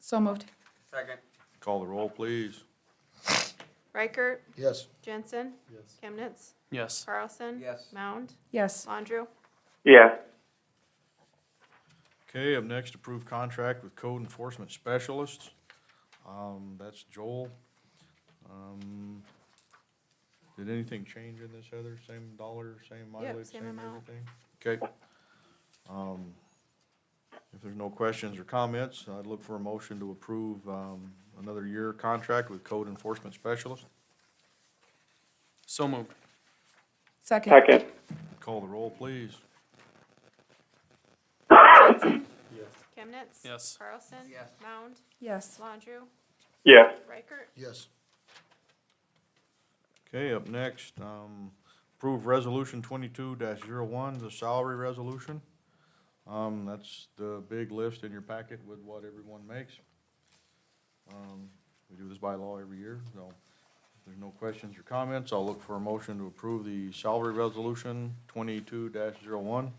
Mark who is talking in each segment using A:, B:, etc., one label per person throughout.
A: So moved.
B: Second.
C: Call the roll, please.
D: Reichert,
E: Yes.
D: Jensen,
E: Yes.
D: Chemnitz,
F: Yes.
D: Carlson.
B: Yes.
D: Mound,
A: Yes.
D: Landrieu.
G: yes,
C: Okay, up next, approve contract with code enforcement specialists. Um, that's Joel. Um, did anything change in this, Heather? Same dollar, same mileage,
D: same
C: same
D: amount.
C: everything? Okay. Um, if there's no questions or comments, I'd look for a motion to approve, um, another year contract with code enforcement specialist.
F: So moved.
A: Second.
G: second,
C: Call the roll, please.
E: Yes.
D: Chemnitz.
F: Yes.
D: Carlson.
B: Yes.
D: Mound,
A: Yes.
D: Landrieu.
G: yes,
D: Reichert,
E: Yes.
C: Okay, up next, um, approve resolution twenty-two one the salary resolution. Um, that's the big list in your packet with what everyone makes. Um, we do this by law every year, so if there's no questions or comments, I'll look for a motion to approve the salary resolution twenty-two one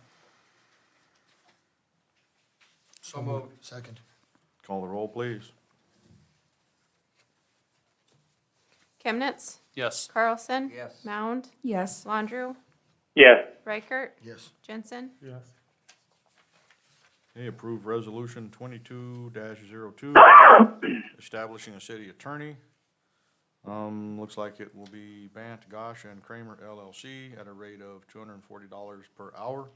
B: So moved.
E: Second.
C: Call the roll, please.
D: Chemnitz,
F: Yes.
D: Carlson.
B: Yes.
D: Mound,
A: Yes.
D: Landrieu.
G: yes,
D: Reichert,
E: Yes.
D: Jensen,
E: Yes.
C: Okay, approve resolution twenty-two 2 establishing a city attorney. Um, looks like it will be Bant, Gosh, and Kramer LLC at a rate of two hundred and forty dollars per hour.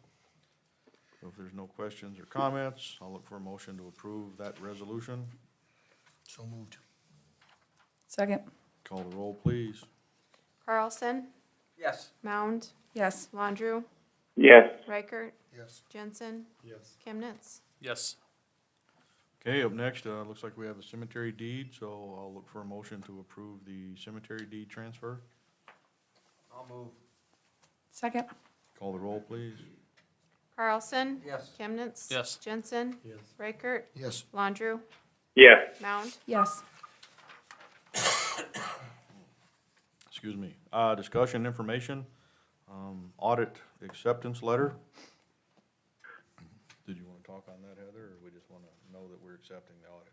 C: So If there's no questions or comments, I'll look for a motion to approve that resolution.
E: So moved.
A: Second.
C: Call the roll, please.
D: Carlson.
B: Yes.
D: Mound,
A: Yes.
D: Landrieu.
G: yes,
D: Reichert,
E: Yes.
D: Jensen,
E: Yes.
D: Chemnitz.
F: Yes.
C: Okay, up next, uh, looks like we have a cemetery deed, so I'll look for a motion to approve the cemetery deed transfer.
B: I'll move.
A: Second.
C: Call the roll, please.
D: Carlson.
B: Yes.
D: Chemnitz.
F: Yes.
D: Jensen,
E: Yes.
D: Reichert,
E: Yes.
D: Landrieu.
G: yes,
D: Mound,
A: Yes.
C: excuse me, uh, discussion information, um, audit acceptance letter. Did you wanna talk on that, Heather, or we just wanna know that we're accepting the audit?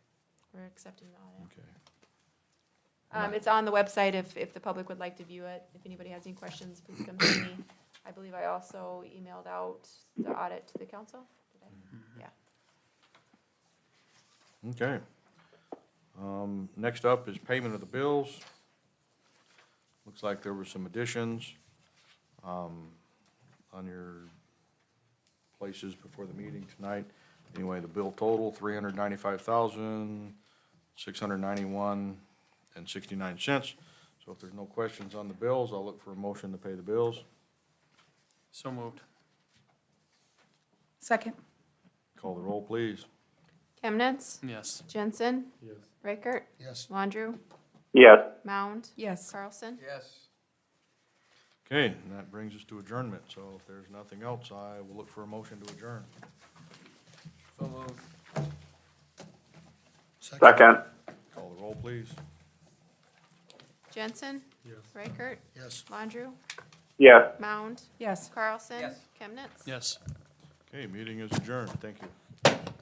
D: we're accepting the audit.
C: Okay.
D: Um, it's on the website if, if the public would like to view it. If anybody has any questions, please come to me. I believe I also emailed out the audit to the council. Did I?
C: Okay. Um, next up is payment of the bills. Looks like there were some additions, um, on your places before the meeting tonight. Anyway, the bill total, three hundred ninety-five thousand, six hundred ninety-one and sixty-nine cents. So if there's no questions on the bills, I'll look for a motion to pay the bills.
F: So moved.
A: Second.
C: Call the roll, please.
D: Chemnitz,
F: Yes.
D: Jensen,
E: Yes.
D: Reichert,
E: Yes.
D: Landrieu,
G: yes,
D: Mound,
A: Yes.
D: Carlson.
B: Yes.
C: Okay, and that brings us to adjournment. So if there's nothing else, I will look for a motion to adjourn.
B: So moved.
G: second,
C: Call the roll, please.
D: Jensen,
E: Yes.
D: Reichert,
E: Yes.
D: Landrieu,
G: yes.
D: Mound,
A: Yes.
D: Carlson.
B: Yes.
D: Chemnitz.
F: Yes.
C: Okay, meeting is adjourned. Thank you.